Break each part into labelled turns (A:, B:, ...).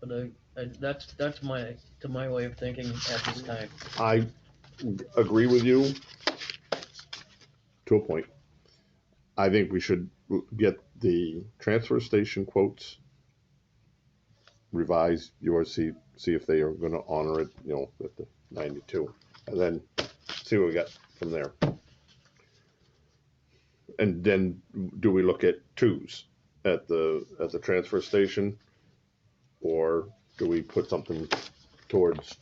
A: But I, I, that's, that's my, to my way of thinking at this time.
B: I agree with you to a point. I think we should get the transfer station quotes, revise yours, see, see if they are gonna honor it, you know, at the ninety-two, and then see what we got from there. And then do we look at twos at the, at the transfer station? Or do we put something towards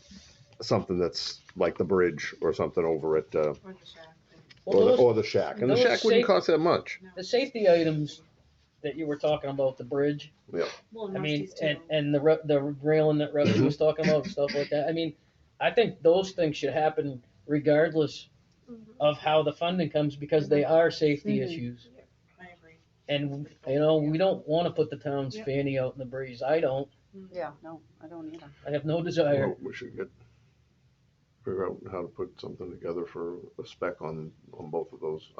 B: something that's like the bridge or something over at, uh,
C: Or the shack, but
B: or
A: Well,
B: the,
A: those,
B: or the shack. And the
A: those
B: shack wouldn't
A: safe-
B: cost that much.
C: no.
A: the safety items that you were talking about, the bridge,
C: Well,
A: I mean,
C: Rusty's
A: and,
C: too.
A: and the, re- the railing that Rusty was talking about, and stuff like that, I mean, I think those things should happen regardless
D: Mm-hmm.
A: of how the funding comes, because they are safety
E: Mhm.
A: issues.
C: I agree.
A: And, you know, we don't wanna put the town's fanny out in the breeze, I don't,
C: Mm.
E: Yeah, no, I don't either.
A: I have no desire.
B: Well, We should get, figure out how to put something together for a spec on, on both of those.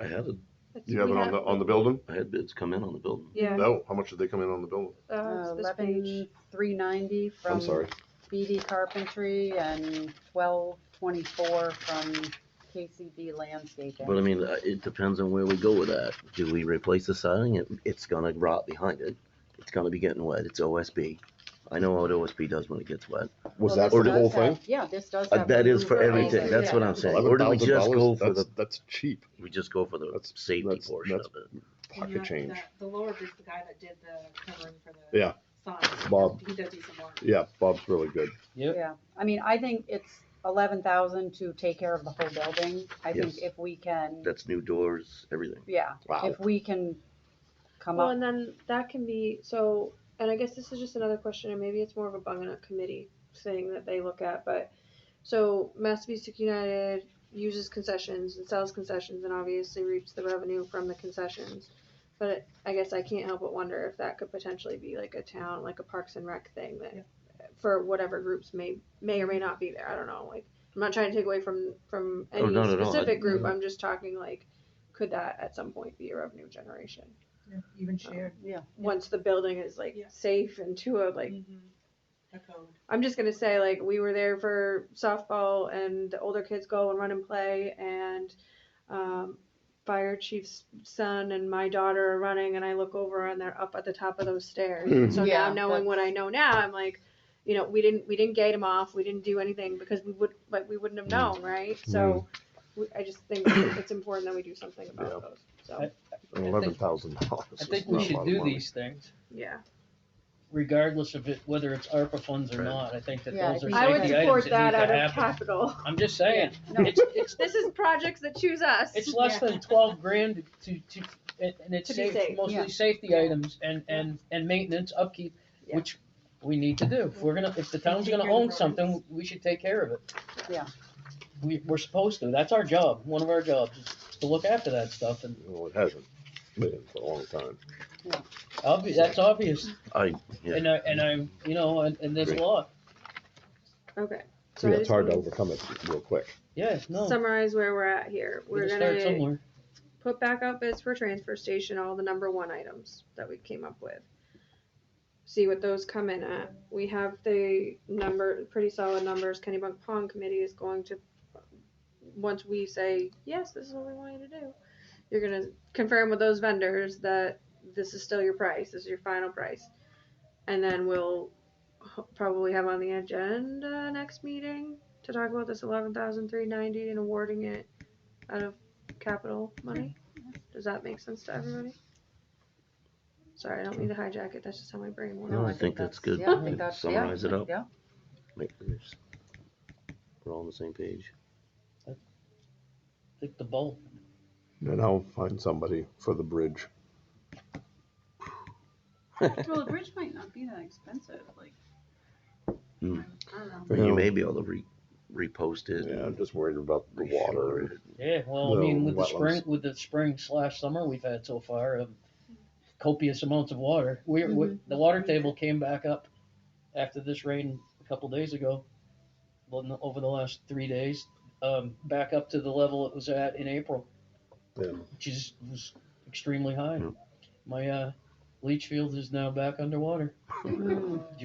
F: I had, a
B: Do you have it
D: We
B: on the, on the building?
F: I had bids come in on the building.
D: Yeah,
B: No, how much did they come in on the building?
D: uh,
E: Oh,
D: it's this page.
E: Eleven three ninety from
B: I'm sorry.
E: BD Carpentry and twelve twenty-four from KCB
F: But I
E: Landscaping.
F: mean, uh, it depends on where we go with that. Do we replace the siding? It, it's gonna rot behind it. It's gonna be getting wet. It's OSB. I know what OSB does when it gets wet.
B: Was
E: Well,
B: that
E: this
B: for the
E: does
B: whole
E: have-
B: thing?
E: Yeah, this does
F: Uh,
E: have.
F: that is for
E: roof rails
F: everything.
E: and-
F: That's what
E: yeah.
F: I'm saying. Or do we just go
B: $11,000?
F: for the,
B: That's- That's cheap.
F: we just go for the
B: That's-
F: safety
B: that's-
F: portion of
B: that's-
F: it?
C: And
B: Pocket
C: that-
B: change.
C: that- The lower is the guy that did the covering for the.
B: Yeah.
C: Signs.
B: Bob.
C: He does do some work.
B: Yeah, Bob's really good.
A: Yep.
E: Yeah, I mean, I think it's eleven thousand to take care of the whole building. I think
F: Yes.
E: if we can,
F: That's new doors, everything.
E: yeah,
B: Wow.
E: if we can come
D: Well,
E: up,
D: and then that can be, so, and I guess this is just another question, and maybe it's more of a bung up committee thing that they look at, but, so Massapequa United uses concessions and sells concessions and obviously reaps the revenue from the concessions. But it- I guess I can't help but wonder if that could potentially be like a town, like a Parks and Rec thing that, for whatever groups may, may or may not be there, I don't know, like, I'm not trying to take away from, from
F: Oh,
D: any
F: not at all. I-
D: specific group, I'm just talking like, could that at some point be a revenue generation?
G: Even
D: shared.
E: yeah. Mm-hmm.
D: once the building is like
C: Yeah.
D: safe and to a like
C: Mhm. The code.
D: I'm just gonna say like we were there for softball and the older kids go and run and play and um, fire chief's son and my daughter are running and I look over and they're up at the top of those stairs. And so
E: Yeah,
D: now knowing what I know now, I'm like, you know, we didn't we didn't gate them off, we didn't do anything because we would like we wouldn't have known, right? So. We, I just think it's important that we do something about
B: Yeah.
D: those. So
A: I-
B: Eleven thousand dollars.
A: I think we should do these things.
D: yeah,
A: regardless of it, whether it's ARPA funds or
F: Right.
A: not, I think that
E: Yeah, I
A: those are
E: think
D: I would
A: safety items
D: support
A: that
D: that
A: need
D: out
A: to
D: of
A: happen.
D: capital.
A: I'm just saying,
E: Yeah, no.
A: it's, it's,
D: This is projects that choose us.
A: it's less than twelve grand to, to, and and it's
D: To be
A: safe-
D: safe,
E: yeah.
A: mostly safety items and, and, and maintenance upkeep,
D: Yeah.
A: which we need to do. If we're gonna, if the town's
C: Take
A: gonna
C: care of
A: own
C: the
A: something,
C: roads.
A: we should take care of it.
E: Yeah.
A: We, we're supposed to, that's our job, one of our jobs, is to look after that stuff, and
B: Well, it hasn't been for a long time.
A: obvi- that's obvious,
F: I, yeah,
A: and I, and I'm, you know, and, and there's a
F: Agree.
A: lot,
D: Okay.
B: Yeah,
D: So I
B: it's
D: just
B: hard to
D: wanna
B: overcome it real quick.
A: yeah, no.
D: Summarize where we're at here.
A: we
D: We're
A: gotta start
D: gonna
A: somewhere.
D: put back out bids for transfer station, all the number one items that we came up with. See what those come in at. We have the number, pretty solid numbers. Kennybunk Pond Committee is going to, once we say, yes, this is what we want you to do, you're gonna confirm with those vendors that this is still your price, this is your final price. And then we'll ho- probably have on the agenda next meeting to talk about this eleven thousand three ninety and awarding it out of capital money. Does that make sense to everybody? Sorry, I don't mean to hijack it, that's just how my brain works.
F: No, I think that's good.
E: Yeah, I think that's, yeah.
F: Summarize it up.
E: Yeah,
F: Make- we're all on the same page.
A: Like the bulb.
B: And I'll find somebody for the bridge.
E: well, the bridge might not be that expensive, like.
F: Hmm.
E: I don't know.
F: Or you
B: Yeah.
F: may be able to re, repost it.
B: Yeah, I'm
F: and
B: just worried about the water and
F: reshore it.
A: Yeah, well, I mean,
B: No,
A: with the
B: wetlands.
A: spring, with the spring slash summer we've had so far, um, copious amounts of water. We, we, the water table came back up after this rain a couple days ago, well, no, over the last three days, um, back up to the level it was at in April,
B: Yeah.
A: which is, was extremely high.
F: Yeah.
A: My, uh, leach field is now back underwater.
E: Mm.